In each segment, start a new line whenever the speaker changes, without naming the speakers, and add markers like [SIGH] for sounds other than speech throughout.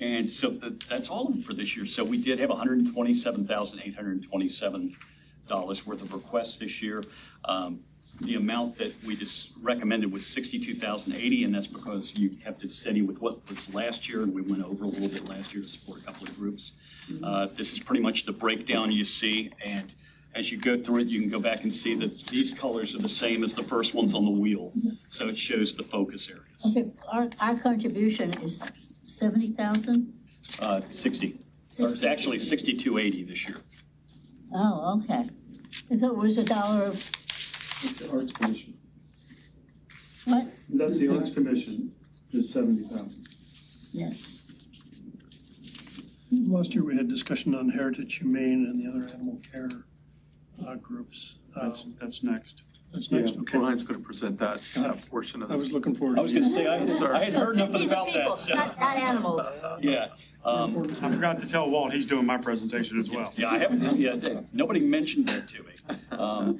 And so that, that's all for this year. So we did have hundred and twenty-seven thousand, eight hundred and twenty-seven dollars worth of requests this year. Um, The amount that we just recommended was sixty-two thousand eighty, and that's because you kept it steady with what was last year, and we went over a little bit last year to support a couple of groups. Uh, This is pretty much the breakdown you see, and as you go through it, you can go back and see that these colors are the same as the first ones on the wheel. So it shows the focus areas.
Okay, our, our contribution is seventy thousand?
Uh, Sixty, or it's actually sixty-two eighty this year.
Oh, okay. I thought it was a dollar of,
It's the Arts Commission.
what?
That's the Arts Commission, is seventy thousand.
Yes.
Last year, we had discussion on Heritage Humane and the other animal care uh, groups. Uh,
That's, that's next.
That's
Yeah,
next, okay.
Brian's going to present that, that portion of
I was
it.
looking forward
I
to
was gonna
it.
say, I, I had heard nothing
These are
about
people,
that, so,
Not, not animals.
yeah. Um,
I forgot to tell Walt, he's doing my presentation as well.
Yeah, I haven't, yeah, they- nobody mentioned that to me. Um,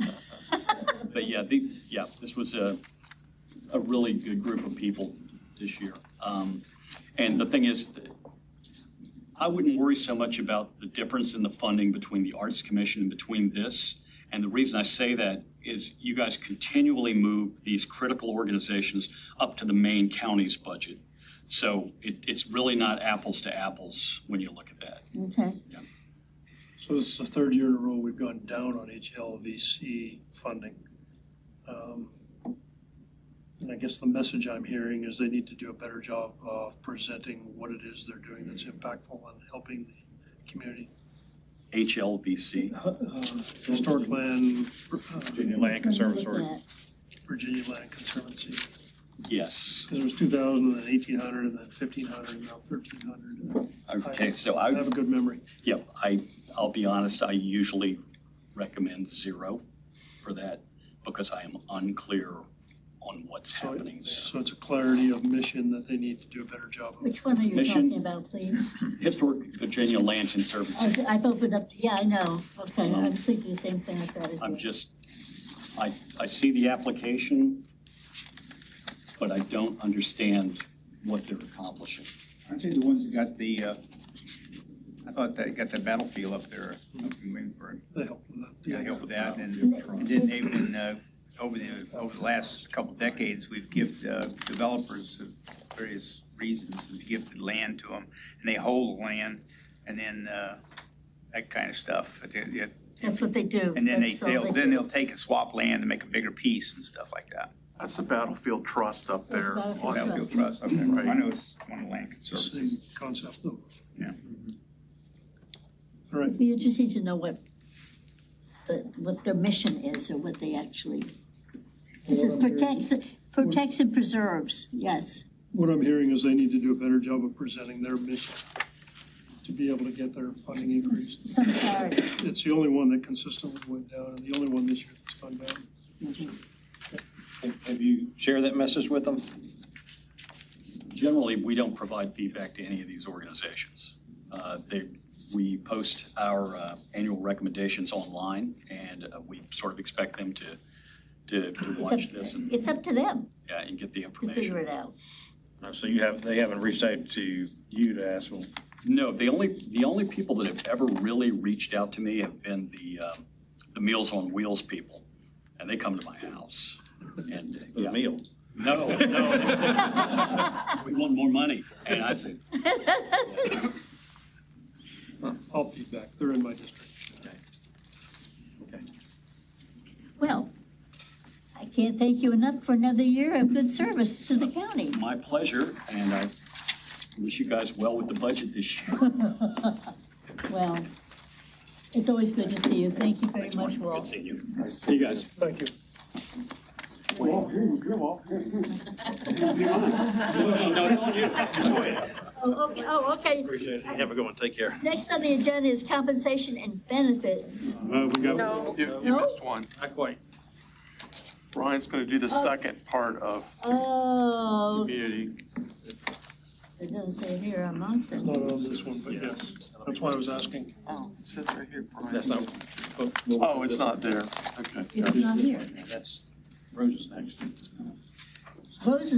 But yeah, the, yeah, this was a, a really good group of people this year. Um, And the thing is, th- I wouldn't worry so much about the difference in the funding between the Arts Commission and between this. And the reason I say that is you guys continually move these critical organizations up to the main county's budget. So it, it's really not apples to apples when you look at that.
Okay,
So this is the third year in a row we've gone down on HLVC funding. Um, And I guess the message I'm hearing is they need to do a better job of presenting what it is they're doing that's impactful and helping the community.
HLVC.
Uh, uh, Historic land, uh,
Virginia Land Conservatory.
Look at
Virginia Land Conservancy.
Yes.
Because it was 2,000, and then 1,800, and then 1,500, and now 1,300.
Okay, so
I
I,
have a good memory.
yeah, I, I'll be honest, I usually recommend zero for that because I am unclear on what's
So
happening
it's-
there.
So it's a clarity of mission that they need to do a better job of.
Which one are you
Mission.
talking about, please?
Historic Virginia Land
I,
Conservancy,
th- I've opened up, yeah, I know, okay, I'm thinking the same thing I thought it
I'm
was.
just, I, I see the application, but I don't understand what they're accomplishing.
Aren't they the ones that got the, uh, I thought they got the battlefield up there, up in Williamsburg.
They help with that.
Yeah, I helped with that, and
Yeah.
and then they've been, uh, over the, over the last couple of decades, we've gifted uh, developers of various reasons, we've gifted land to them, and they hold the land, and then uh, that kind of stuff. But they- they-
That's what they do.
And then they,
That's all
they'll, then
do.
they'll take and swap land and make a bigger piece and stuff like that.
That's the Battlefield Trust up
That's
there.
Battlefield
on-
Battlefield Trust, okay,
Right.
I know it's one of the land
It's the
conservancies.
same concept though.
Yeah.
All right,
It'd Be interesting to know what, the, what their mission is or what they actually, this is protects, protects and preserves, yes.
what I'm hearing is they need to do a better job of presenting their mission to be able to get their funding increase.
Some clarity.
It's the only one that consistently went down, and the only one this year that's gone down.
Have you shared that message with them?
Generally, we don't provide feedback to any of these organizations. Uh, They, we post our uh, annual recommendations online, and uh, we sort of expect them to, to to
It's up-
watch this and,
It's up to them
yeah, and get the
to figure
information.
it out.
So you have, they haven't reached out to you to ask them?
No, the only, the only people that have ever really reached out to me have been the, um, the Meals on Wheels people, and they come to my house. And, uh, yeah.
meal.
No, no. We want more money. And I said,
I'll feedback, they're in my district.
Well, I can't thank you enough for another year of good service to the county. [LAUGHS]
My pleasure, and I wish you guys well with the budget this year.
Well, it's always good to see you. Thank you very
Thanks,
much,
Marty. Good
Walt.
seeing you. See you guys.
Thank you.
No, it's on you.
Oh, okay, oh, okay.
Have a good one, take care.
Next on the agenda is compensation and benefits.
No, Uh, we got,
You, you
No?
missed one.
Not quite.
Brian's going to do the
Oh.
second part of
Oh,
community.
it doesn't say here on Moncton.
Not on this one, but yes, that's why I was asking.
Oh,
It says right here, Brian.
That's not.
Oh, it's not there. Okay.
it's not here.
That's, Rose is next.
Rose